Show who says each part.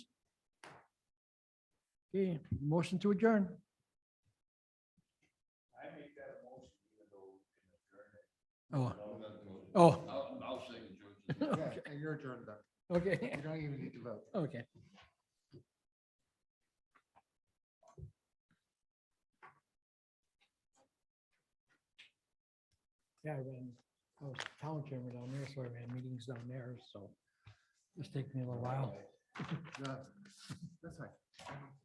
Speaker 1: Okay, motion to adjourn.
Speaker 2: I make that motion even though in the journey.
Speaker 1: Oh,
Speaker 2: I'll,
Speaker 1: oh,
Speaker 2: I'll second George's.
Speaker 3: Yeah, and you're adjourned then.
Speaker 1: okay,
Speaker 3: You don't even need to vote.
Speaker 1: okay. Yeah, I ran, I was town chairman down there, so I ran meetings down there, so it's taken me a little while.
Speaker 3: Yeah, That's fine.